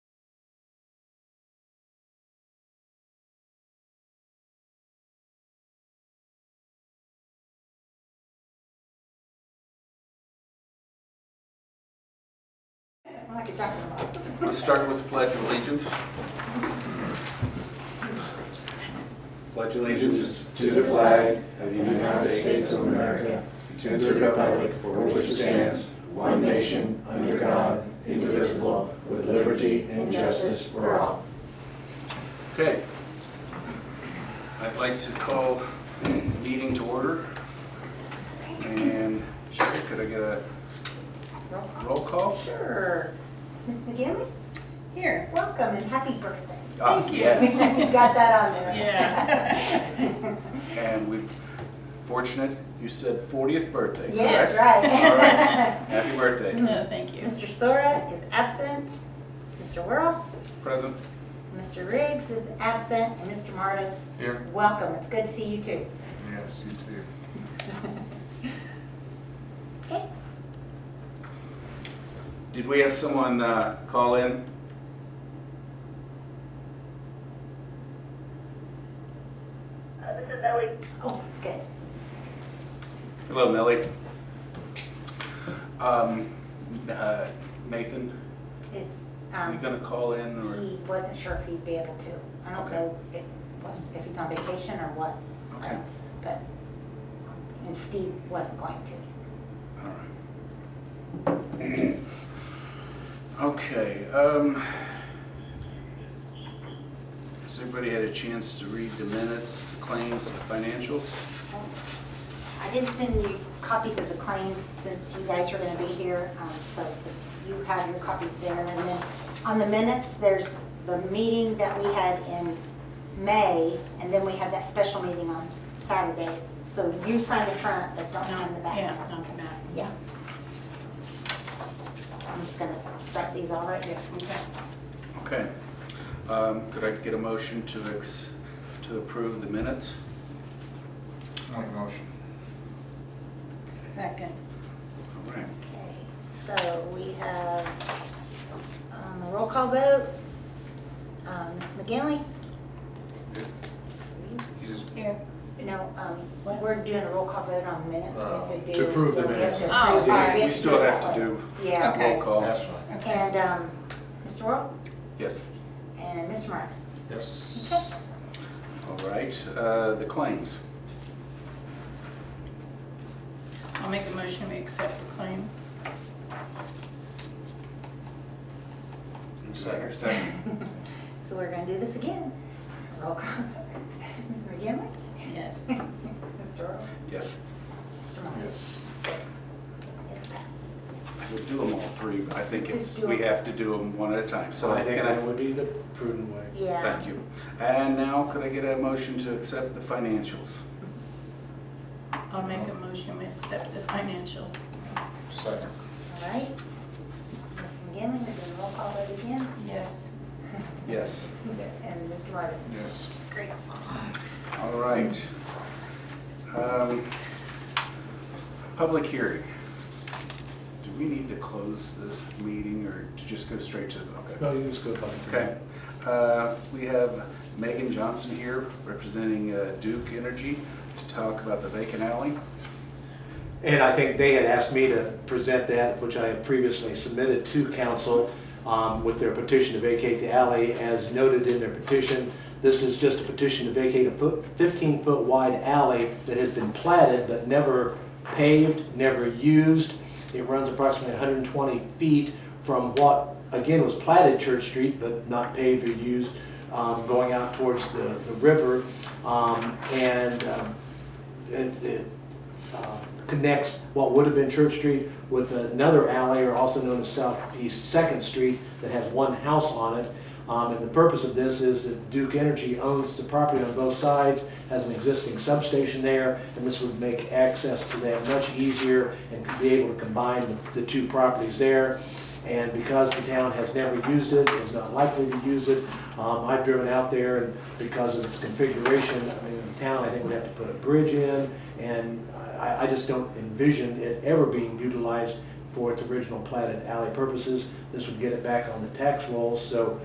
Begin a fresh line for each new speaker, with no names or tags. We're not talking about this.
Let's start with the Pledge of Allegiance. Pledge
allegiance to the flag of the United States of America, to the republic for which it stands, one nation, under God, indivisible, with liberty and justice for all.
Okay. I'd like to call meeting to order. And Sherry, could I get a
Roll call.
roll call?
Oh, Sure. Ms. McGinley? Here. Welcome and happy birthday.
Ah,
Thank you.
yes.
You Got that on there.
Yeah.
And we're fortunate, you said 40th birthday, correct?
Yes,
All
right.
right. Happy birthday.
No, thank you.
Mr. Sora is absent, Mr. Whirl,
Present.
Mr. Riggs is absent, and Mr. Martis. Here. Welcome, it's good to see you too.
Yes, you too.
Okay,
Did we have someone uh, call in?
Uh, This is Ellie.
oh, good.
Hello, Millie. Um, uh, Nathan,
Is,
is he
um,
gonna call in or?
he wasn't sure if he'd be able to. I don't
Okay.
know if, what- if he's on vacation or what. I
Okay.
don't- But, and Steve wasn't going to.
All right. Okay, um, has everybody had a chance to read the minutes, the claims, the financials?
I didn't send you copies of the claims since you guys are gonna be here, um, so you have your copies there. And then on the minutes, there's the meeting that we had in May, and then we had that special meeting on Saturday. So you sign the front, but don't sign the back.
Yeah, not the back.
Yeah. I'm just gonna start these all right here.
Okay.
Okay, um, could I get a motion to ex, to approve the minutes?
Make a motion.
Second.
All right,
Okay, so we have um, a roll call vote. Um, Ms. McGinley?
You just-
Here.
No, um, we're doing a roll call vote on minutes. We have
Uh, to
do-
approve the
we have to
minutes.
Oh,
approve- we
alright.
have
we
to
still
it
have
that
to
way.
do
Yeah,
roll
That's
call.
right.
and um, Mr. Roll
Yes,
and Mr. Marks.
Yes.
Okay,
all right, uh, the claims.
I'll make a motion, we accept the claims.
Second.
so we're gonna do this again. Roll call. Ms. McGinley?
Yes.
Mr. Roll?
Yes,
Mr. Marks?
Yes.
It's passed.
we'll do them all three, but I think
Let's
it's,
just do
we
them.
have to do them one at a time, so
I think
can I?
that would be the prudent way.
Yeah.
Thank you. And now could I get a motion to accept the financials?
I'll make a motion, we accept the financials.
Second.
All right. Ms. McGinley, we're doing roll call vote again.
Yes.
Yes.
And Ms. Martin.
Yes.
Great.
All right. Um, Public hearing. Do we need to close this meeting or to just go straight to,
No,
okay?
you just go back. to-
Okay. Uh, We have Megan Johnson here representing uh, Duke Energy to talk about the vacant alley.
And I think they had asked me to present that, which I had previously submitted to council um, with their petition to vacate the alley. As noted in their petition, this is just a petition to vacate a 15-foot wide alley that has been platted but never paved, never used. It runs approximately 120 feet from what, again, was platted Church Street but not paved or used, um, going out towards the the river. Um, And um, it- it uh, connects what would have been Church Street with another alley, or also known as Southeast Second Street, that has one house on it. Um, And the purpose of this is that Duke Energy owns the property on both sides, has an existing substation there, and this would make access to that much easier and could be able to combine the the two properties there. And because the town has never used it, is not likely to use it, um, I've driven out there, and because of its configuration, I mean, the town, I think, would have to put a bridge in, and I, I just don't envision it ever being utilized for its original platted alley purposes. This would get it back on the tax rolls, so